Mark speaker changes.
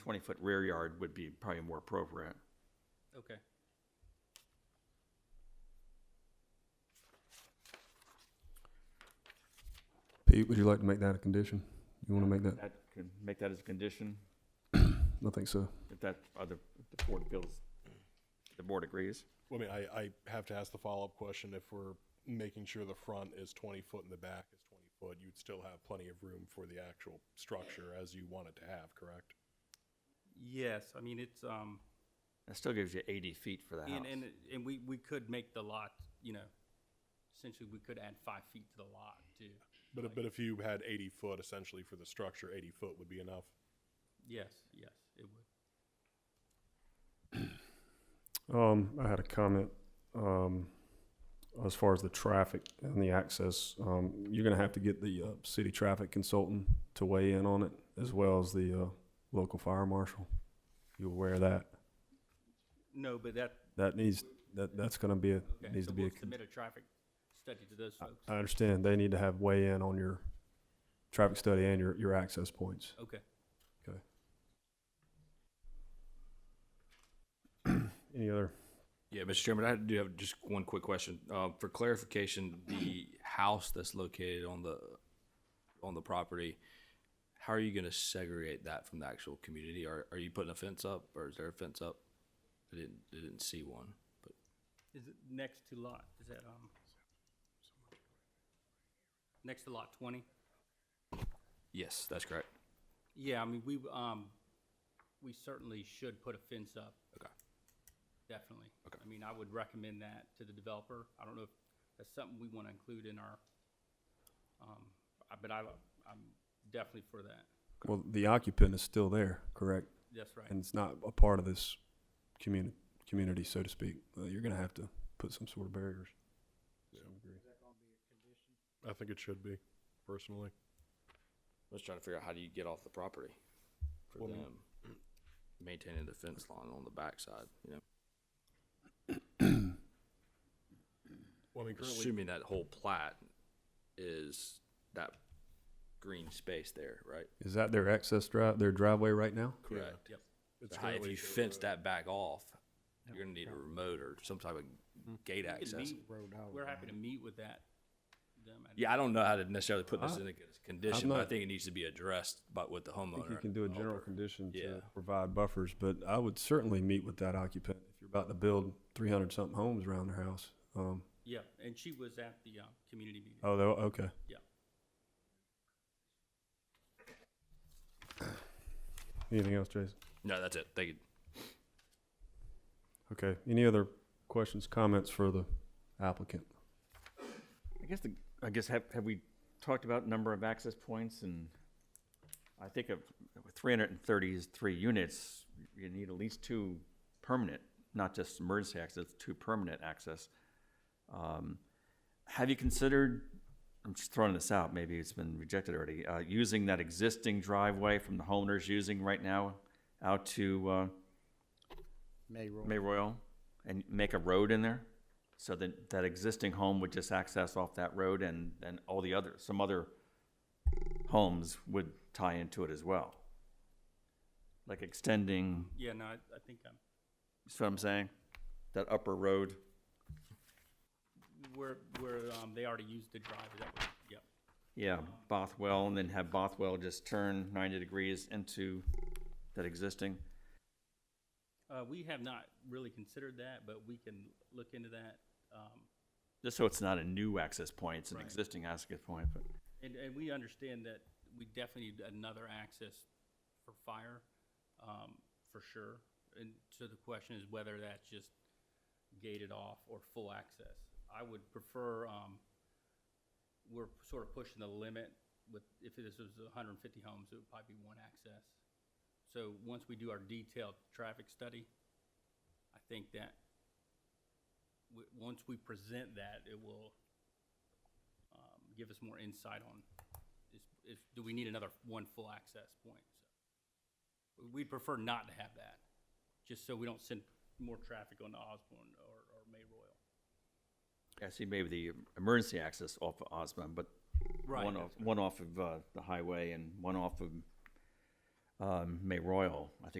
Speaker 1: twenty-foot rear yard would be probably more appropriate.
Speaker 2: Okay.
Speaker 3: Pete, would you like to make that a condition? You want to make that?
Speaker 1: That could make that as a condition,
Speaker 3: I think so.
Speaker 1: if that other, if the board feels, the board agrees.
Speaker 4: Well, I mean, I, I have to ask the follow-up question, if we're making sure the front is twenty foot and the back is twenty foot, you'd still have plenty of room for the actual structure as you want it to have, correct?
Speaker 2: Yes, I mean, it's, um,
Speaker 1: That still gives you eighty feet for the house.
Speaker 2: and, and, and we, we could make the lot, you know, essentially, we could add five feet to the lot too.
Speaker 4: But, but if you had eighty foot essentially for the structure, eighty foot would be enough.
Speaker 2: Yes, yes, it would.
Speaker 3: Um, I had a comment, um, as far as the traffic and the access. Um, you're gonna have to get the, uh, city traffic consultant to weigh in on it, as well as the, uh, local fire marshal. You aware of that?
Speaker 2: No, but that,
Speaker 3: That needs, that, that's gonna be, a
Speaker 2: okay,
Speaker 3: needs
Speaker 2: so
Speaker 3: to be
Speaker 2: we'll
Speaker 3: a con- Uh,
Speaker 2: submit a traffic study to those folks.
Speaker 3: I understand, they need to have weigh in on your traffic study and your, your access points.
Speaker 2: Okay.
Speaker 3: Any other
Speaker 5: Yeah, Mr. Chairman, I do have just one quick question. Uh, for clarification, the house that's located on the, on the property, how are you gonna segregate that from the actual community? Are, are you putting a fence up or is there a fence up? I didn't, I didn't see one, but
Speaker 2: Is it next to lot, is that, um, next to lot twenty?
Speaker 5: yes, that's correct.
Speaker 2: Yeah, I mean, we, um, we certainly should put a fence up.
Speaker 5: Okay.
Speaker 2: Definitely.
Speaker 5: Okay.
Speaker 2: I mean, I would recommend that to the developer. I don't know if that's something we want to include in our, um, I- but I, I'm definitely for that.
Speaker 3: Well, the occupant is still there, correct?
Speaker 2: That's right.
Speaker 3: And it's not a part of this community, community, so to speak. Uh, you're gonna have to put some sort of barriers.
Speaker 4: I think it should be, personally.
Speaker 5: I was trying to figure out how do you get off the property for
Speaker 4: Well, I mean-
Speaker 5: them? Maintaining the fence line on the backside, you know,
Speaker 4: Well, I mean, currently,
Speaker 5: assuming that whole plat is that green space there, right?
Speaker 3: Is that their access drive, their driveway right now?
Speaker 5: Correct.
Speaker 2: Yep.
Speaker 4: it's
Speaker 5: So how- if
Speaker 4: currently
Speaker 5: you fence that back off, you're gonna need a remote or some type
Speaker 3: Hmm.
Speaker 5: of gate
Speaker 2: We can
Speaker 5: access.
Speaker 2: meet- We're happy to meet with that, them.
Speaker 5: Yeah, I don't know how to necessarily put this in a condition, but I
Speaker 3: not-
Speaker 5: think it needs to be addressed by with the
Speaker 3: I think you
Speaker 5: homeowner.
Speaker 3: can do a general condition
Speaker 5: Yeah.
Speaker 3: to provide buffers, but I would certainly meet with that occupant. If you're about to build three hundred something homes around their house, um,
Speaker 2: Yeah, and she was at the, uh, community meeting.
Speaker 3: oh, they'll- okay.
Speaker 2: Yeah.
Speaker 3: Anything else, Jason?
Speaker 5: No, that's it. Thank you.
Speaker 3: Okay, any other questions, comments for the applicant?
Speaker 1: I guess the, I guess have, have we talked about number of access points and I think of three hundred and thirty-three units, you need at least two permanent, not just emergency access, two permanent access. Um, Have you considered, I'm just throwing this out, maybe it's been rejected already, uh, using that existing driveway from the homeowners using right now out to, uh,
Speaker 6: May roll.
Speaker 1: May Royal and make a road in there? So that, that existing home would just access off that road and, and all the other, some other homes would tie into it as well? Like extending,
Speaker 2: Yeah, no, I, I think um, I'm,
Speaker 1: see what I'm saying? That upper road?
Speaker 2: where, where, um, they already used the drive, that was, yep.
Speaker 1: Yeah, Bothwell, and then have Bothwell just turn ninety degrees into that existing?
Speaker 2: Uh, we have not really considered that, but we can look into that. Um,
Speaker 1: Just so it's not a new access point, it's an
Speaker 2: Right.
Speaker 1: existing access point, but.
Speaker 2: and, and we understand that we definitely need another access for fire, um, for sure. And so the question is whether that's just gated off or full access. I would prefer, um, we're sort of pushing the limit with, if this was hundred and fifty homes, it would probably be one access. So once we do our detailed traffic study, I think that w- once we present that, it will um, give us more insight on is, is, do we need another one full access point? So We'd prefer not to have that, just so we don't send more traffic on to Osborne or, or May Royal.
Speaker 1: I see maybe the emergency access off of Osmond, but
Speaker 2: Right,
Speaker 1: one off,
Speaker 2: that's
Speaker 1: one off of, uh, the highway and one off of, um, May Royal, I think